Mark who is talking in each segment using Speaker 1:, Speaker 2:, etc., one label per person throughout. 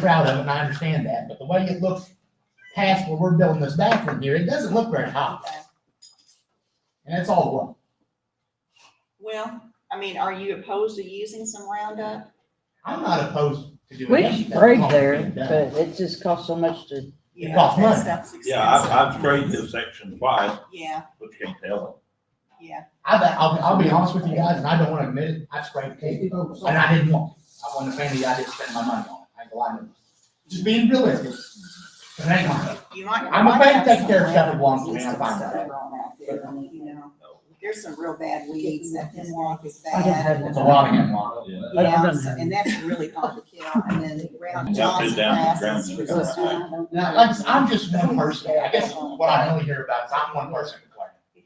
Speaker 1: proud of it, and I understand that, but the way it looks past where we're building this bathroom here, it doesn't look very high. And that's all wrong.
Speaker 2: Well, I mean, are you opposed to using some Roundup?
Speaker 1: I'm not opposed to doing
Speaker 3: We
Speaker 1: anything.
Speaker 3: should trade
Speaker 1: wrong
Speaker 3: there,
Speaker 1: being done.
Speaker 3: but it just costs so much to,
Speaker 1: It
Speaker 2: You know,
Speaker 1: costs
Speaker 2: that
Speaker 1: money.
Speaker 2: stuff's
Speaker 4: Yeah, I've, I've
Speaker 2: expensive.
Speaker 4: traded this section twice,
Speaker 2: Yeah,
Speaker 4: but you can't tell
Speaker 2: yeah.
Speaker 1: I, bet- I'll, I'll be honest with you guys, and I don't wanna admit it, I sprayed cake, and I didn't want it. I wasn't a fan of the idea of spending my money on it, I ain't gonna lie to you. Just being realistic. But hang on,
Speaker 2: You might.
Speaker 1: I'm a
Speaker 2: might
Speaker 1: fan
Speaker 2: have
Speaker 1: take care of
Speaker 2: some
Speaker 1: stuff at
Speaker 2: Roundup
Speaker 1: once, man, I
Speaker 2: resistance
Speaker 1: find that out.
Speaker 2: around out there, I mean, you know. There's some real bad weeds that can walk as
Speaker 3: I didn't
Speaker 2: bad.
Speaker 3: have
Speaker 1: it's a
Speaker 3: one.
Speaker 1: lot of him, lot.
Speaker 4: it. Yeah.
Speaker 3: I don't
Speaker 2: Yeah,
Speaker 3: know.
Speaker 2: so- and that's really complicated. And then Roundup
Speaker 4: Dumped it
Speaker 2: Johnson
Speaker 4: down the
Speaker 2: grass is
Speaker 4: ground.
Speaker 2: resistant.
Speaker 1: Now, like, I'm just one person, I guess what I really hear about is I'm one person complaining.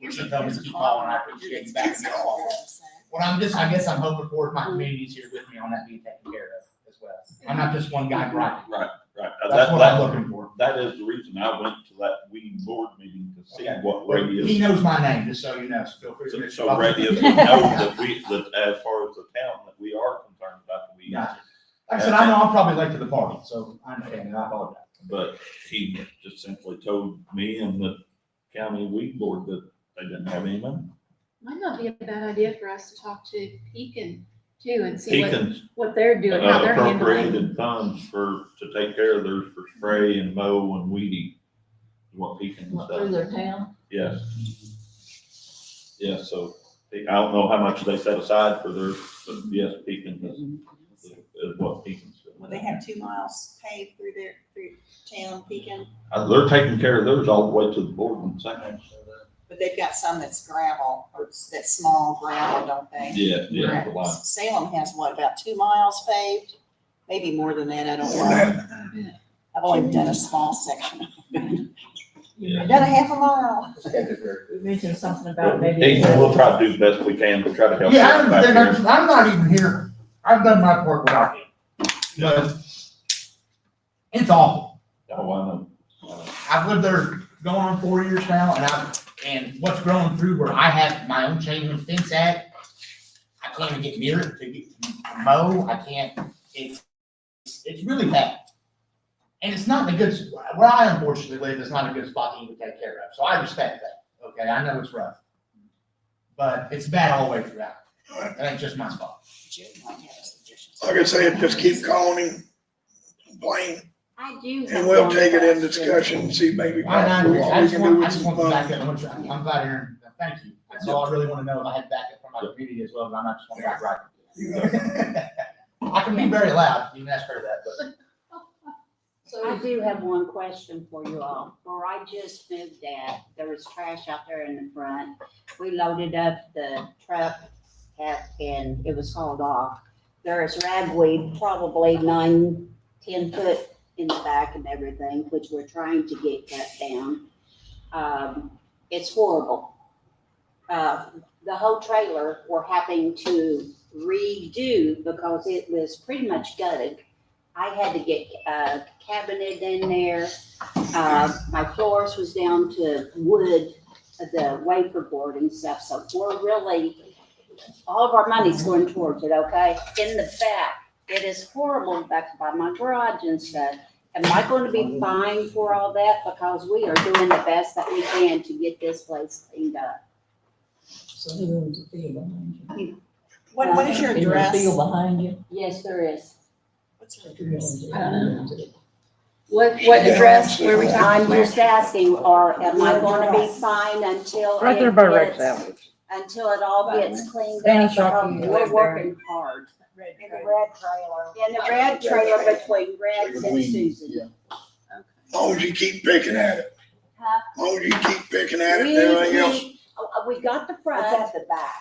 Speaker 2: Here's
Speaker 1: Keep
Speaker 2: a-
Speaker 1: going,
Speaker 2: here's a
Speaker 1: keep going, I
Speaker 2: call.
Speaker 1: appreciate you backing me up.
Speaker 2: It's-
Speaker 1: What I'm just, I guess I'm hoping for is my community's here with me on that being taken care of as well. I'm not just one guy grinding.
Speaker 4: Right, uh,
Speaker 1: That's
Speaker 4: that,
Speaker 1: what I'm
Speaker 4: that,
Speaker 1: looking for.
Speaker 4: that is the reason I went to that weed board meeting to see
Speaker 1: Okay.
Speaker 4: what
Speaker 1: He
Speaker 4: radius.
Speaker 1: knows my name, just so you know, so feel free to.
Speaker 4: So
Speaker 1: mention
Speaker 4: so
Speaker 1: my-
Speaker 4: radius would know that we, that as far as the town, that we are concerned about the weeds.
Speaker 1: Gotcha. Like I said, I know I'm probably late to the party, so I understand, and I apologize.
Speaker 4: But he just simply told me and the county weed board that they didn't have any money.
Speaker 5: Might not be a bad idea for us to talk to Pekin too and see what,
Speaker 4: Pekin's
Speaker 5: what they're doing, how they're handling.
Speaker 4: uh, appropriated funds for, to take care of theirs for spray and mow and weeding. What Pekin's
Speaker 3: Through
Speaker 4: done,
Speaker 3: their town.
Speaker 4: yes. Yeah, so I don't know how much they set aside for their, but yes, Pekin is, is what Pekin's
Speaker 2: Well, they
Speaker 4: doing.
Speaker 2: have two miles paved through their, through town, Pekin,
Speaker 4: Uh, They're taking care of theirs all the way to the board and second.
Speaker 2: but they've got some that's gravel, or it's that small gravel, don't they?
Speaker 4: Yeah, yeah, the line.
Speaker 2: Salem has what, about two miles paved? Maybe more than that, I don't know. I've only done a small section.
Speaker 4: Yeah.
Speaker 2: Done a half a mile.
Speaker 3: You mentioned something
Speaker 4: Ethan, we'll try to do the best we can to try to help.
Speaker 1: Yeah, I'm,
Speaker 4: back
Speaker 1: they're
Speaker 4: here.
Speaker 1: not- I'm not even here. I've done my part without you. But it's awful.
Speaker 4: Oh, I know. I know.
Speaker 1: I've lived there going on four years now and I've, and what's growing through where I have my own chain link fence at, I can't even get near it to get to mow. I can't, it's, it's really bad. And it's not in a good, s- where I unfortunately live is not a good spot to even take care of. So I respect that. Okay, I know it's rough. But it's bad all the way throughout. It ain't just my spot.
Speaker 2: Jim might have a suggestion.
Speaker 6: Like I said, just keep calling him, complain,
Speaker 5: I do.
Speaker 6: and we'll take it in discussion and see maybe
Speaker 1: Why not? I
Speaker 6: possibly what we
Speaker 1: just
Speaker 6: can do
Speaker 1: want, I
Speaker 6: with
Speaker 1: just want
Speaker 6: some
Speaker 1: the
Speaker 6: funds.
Speaker 1: backup. I'm trying- I'm glad, Aaron. Thank you. That's all I really want to know. If I had backup from my community as well, but I'm not just going to right.
Speaker 6: You know,
Speaker 1: I can be very loud. You can ask her that, but
Speaker 7: I do have one question for you all. Where I just moved at, there was trash out there in the front. We loaded up the truck at- and it was hauled off. There is ragweed, probably nine, ten foot in the back and everything, which we're trying to get cut down. Um, it's horrible. Uh, the whole trailer, we're having to redo because it was pretty much gutted. I had to get uh, a cabinet in there. Uh, my floors was down to wood, the wafer board and stuff, so we're really, all of our money's going towards it, okay? In the back, it is horrible back by my garage and stuff. Am I going to be fined for all that? Because we are doing the best that we can to get this place cleaned up.
Speaker 2: What, what is your address?
Speaker 3: behind you.
Speaker 7: Yes, there is.
Speaker 2: What's your address?
Speaker 5: What, what address, where we
Speaker 7: I'm
Speaker 5: talking?
Speaker 7: just asking, or am I going to be fined until?
Speaker 3: Right there
Speaker 7: it
Speaker 3: by Rex
Speaker 7: gets-
Speaker 3: Allen's.
Speaker 7: until it all gets cleaned
Speaker 3: Danny
Speaker 7: up.
Speaker 3: Sharkey
Speaker 7: because
Speaker 3: lives
Speaker 7: We're
Speaker 3: there.
Speaker 7: working hard.
Speaker 2: Red
Speaker 7: In the red trailer. In the red
Speaker 6: trailer
Speaker 7: trailer between Rex and Susan.
Speaker 6: As long as you keep picking at it,
Speaker 7: Huh?
Speaker 6: as long as you keep picking at it,
Speaker 7: We,
Speaker 6: and everything else.
Speaker 7: we, oh, we got the
Speaker 2: It's
Speaker 7: front,
Speaker 2: at the back.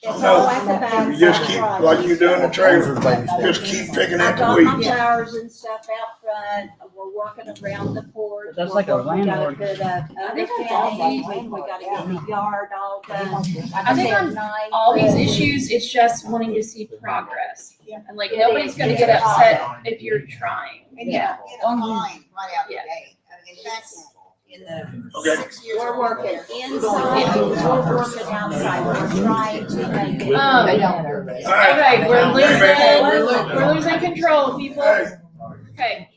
Speaker 7: it's
Speaker 6: No,
Speaker 2: Oh.
Speaker 7: all at the back.
Speaker 6: You just keep, like you do in the trailer, just keep picking
Speaker 7: I
Speaker 6: at the
Speaker 7: got my
Speaker 6: weeds.
Speaker 7: flowers and stuff out front, we're working around the porch.
Speaker 3: That's
Speaker 7: we're
Speaker 3: like a
Speaker 7: working- we gotta
Speaker 3: landlord.
Speaker 7: Put up
Speaker 5: I think that's all
Speaker 7: underpinning, uh, we gotta get the yard all done.
Speaker 5: I think on
Speaker 7: nine.
Speaker 5: All these issues, it's just wanting to see progress.
Speaker 2: Yeah.
Speaker 5: And like, nobody's gonna get upset if you're trying.
Speaker 2: And you
Speaker 5: Yeah.
Speaker 2: don't get a fine right out the
Speaker 5: Yeah.
Speaker 2: gate. I mean, In fact, in the
Speaker 6: Okay.
Speaker 2: six years.
Speaker 7: We're
Speaker 2: I've been
Speaker 7: working
Speaker 2: there,
Speaker 7: inside, we're working
Speaker 1: Um,
Speaker 7: outside, we're trying to make it.
Speaker 5: Um,
Speaker 7: They
Speaker 6: All right.
Speaker 5: Okay, we're
Speaker 6: Wait a minute.
Speaker 5: losing, we're losing control, people.
Speaker 6: All right.
Speaker 5: Okay,